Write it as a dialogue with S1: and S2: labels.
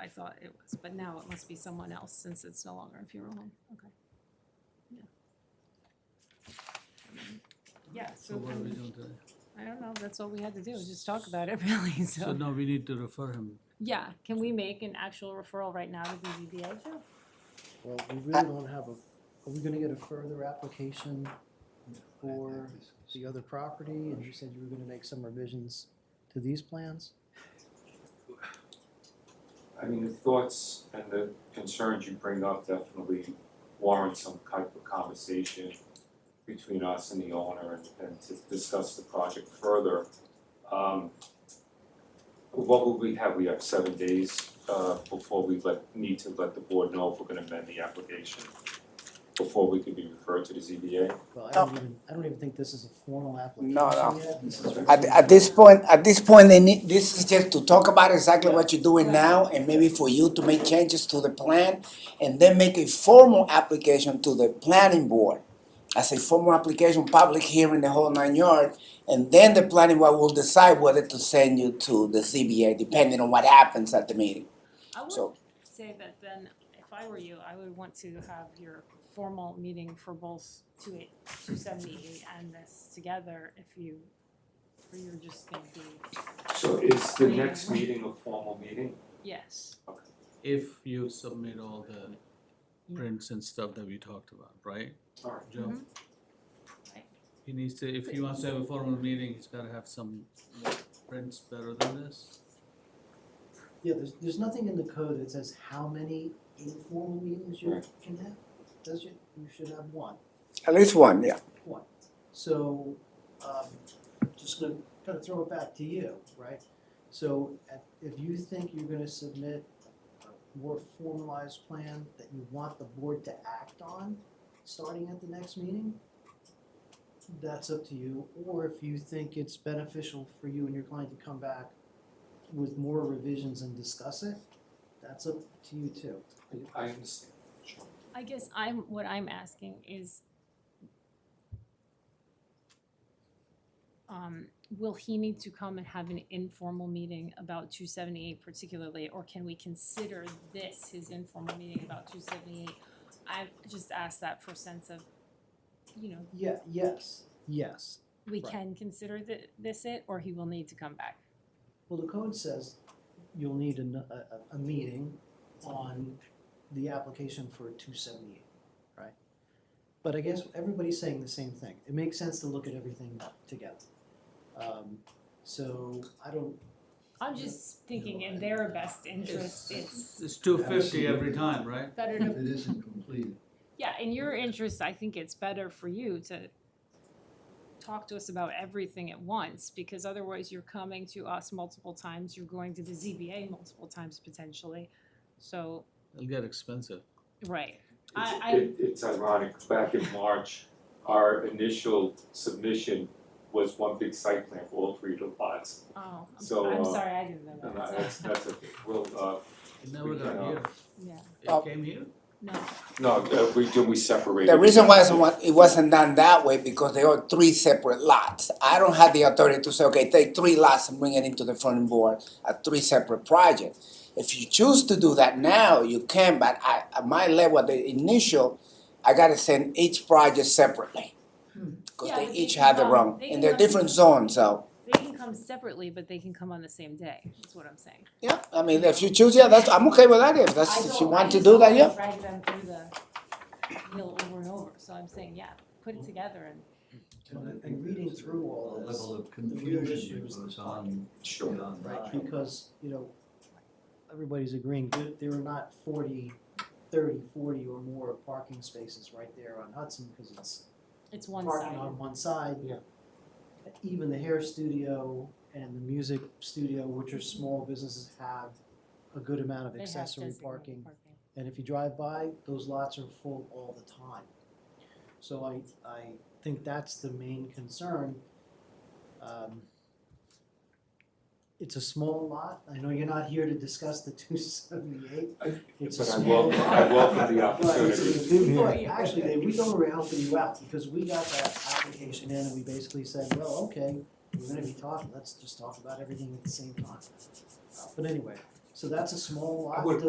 S1: I thought it was, but now it must be someone else since it's no longer a funeral home, okay. Yeah. Um, Yeah,
S2: So
S1: so, I
S2: what are we
S1: mean,
S2: doing today?
S1: I don't know, that's all we had to do, is just talk about it really,
S2: So
S1: so.
S2: now we need to refer him.
S1: Yeah, can we make an actual referral right now to BZBA, Joe?
S3: Well, we really don't have a, are we gonna get a further application for the other property? And you said you were gonna make some revisions to these plans?
S4: I mean, the thoughts and the concerns you bring up definitely warrant some type of conversation between us and the owner and and to discuss the project further. Um what will we have, we have seven days uh before we let, need to let the board know if we're gonna amend the application before we could be referred to the ZBA.
S3: Well, I don't even, I don't even think this is a formal application
S5: No, no.
S3: yet. This is
S5: At,
S3: really-
S5: at this point, at this point, they need, this is just to talk about exactly what you're doing now and maybe for you to make changes to the plan and then make a formal application to the planning board. As a formal application, public hearing, the whole nine yards, and then the planning board will decide whether to send you to the ZBA, depending on what happens at the meeting.
S1: I would
S5: So-
S1: say that then, if I were you, I would want to have your formal meeting for both two eight, two seventy-eight and this together if you, or you're just gonna be,
S4: So is the next meeting a formal meeting?
S1: yes.
S2: If you submit all the prints and stuff that we talked about, right?
S4: Alright.
S2: Joe?
S1: Mhm.
S2: Mm-hmm.
S1: Right.
S2: He needs to, if he wants to have a formal meeting, he's gotta have some more prints better than this.
S3: Yeah, there's, there's nothing in the code that says how many informal meetings you
S4: Right.
S3: can have. Does you, you should have one.
S5: At least one, yeah.
S3: one. So, um, just gonna kinda throw it back to you, right? So, at- if you think you're gonna submit a more formalized plan that you want the board to act on, starting at the next meeting, that's up to you, or if you think it's beneficial for you and your client to come back with more revisions and discuss it, that's up to you too.
S4: I understand, sure.
S1: I guess I'm, what I'm asking is, um, will he need to come and have an informal meeting about two seventy-eight particularly, or can we consider this his informal meeting about two seventy-eight? I just asked that for sense of, you know,
S3: Yeah, yes, yes.
S1: we
S3: Right.
S1: can consider thi- this it, or he will need to come back.
S3: Well, the code says you'll need an- a, a, a meeting on the application for two seventy-eight, right? But I guess everybody's saying the same thing. It makes sense to look at everything together. Um, so I don't,
S1: I'm just thinking in their best interest, it's
S2: It's two fifty every time, right?
S1: better
S6: If
S1: to
S6: it isn't completed,
S1: Yeah, in your interest, I think it's better for you to talk to us about everything at once, because otherwise you're coming to us multiple times, you're going to the ZBA multiple times potentially. So,
S2: It'll get expensive.
S1: right,
S4: It's,
S1: I- I-
S4: it, it's ironic, back in March, our initial submission was one big site plan for all three of the lots.
S1: oh, I'm-
S4: So,
S1: I'm
S4: uh,
S1: sorry, I didn't know
S4: And I-
S1: that,
S4: that's, that's a, well, uh,
S2: It never got here.
S1: yeah,
S5: Uh,
S2: It came here?
S1: no,
S4: no, uh, we, do we separated.
S5: The reason why it's wa- it wasn't done that way, because they are three separate lots. I don't have the authority to say, okay, take three lots and bring it into the funding board, a three separate project. If you choose to do that now, you can, but I, at my level, the initial, I gotta send each project separately. Cause
S1: Yeah,
S5: they
S1: but they
S5: each
S1: can
S5: have their
S1: come-
S5: own,
S1: they can
S5: and they're
S1: come-
S5: different zones, so,
S1: they can come separately, but they can come on the same day, is what I'm saying.
S5: yeah, I mean, if you choose, yeah, that's, I'm okay with that, if
S1: I
S5: that's, if you
S1: don't- I
S5: want to
S1: just
S5: do
S1: don't
S5: that,
S1: wanna
S5: yeah.
S1: Drag them through the mill over and over, so I'm saying, yeah, put it together and
S3: and and reading through
S6: a
S3: all this,
S6: level of
S3: real issue
S6: confusion
S3: is
S6: that
S3: the
S6: goes on
S4: Sure,
S6: beyond
S3: right,
S6: that.
S3: because, you know, everybody's agreeing, there, there are not 40, 30, 40 or more parking spaces right there on Hudson, cause it's
S1: it's one sided.
S3: parking on one side.
S4: Yeah.
S3: Even the hair studio and the music studio, which are small businesses, have a good amount of
S1: They have
S3: accessory
S1: designated
S3: parking. And if you drive by, those lots are full all the time. So I, I think that's the main concern. Um, It's a small lot, I know you're not here to discuss the two seventy-eight.
S4: I-
S3: It's a
S4: but I
S3: small
S4: welcome,
S3: lot.
S4: I welcome the
S3: Right,
S4: opportunity.
S3: so we- right, actually, Dave, we don't really help you out, because we got that application in and we basically said, well, okay, we're gonna be talking, let's just talk about everything at the same time. Uh, But anyway, So that's a small
S4: I
S3: lot,
S4: would
S3: doesn't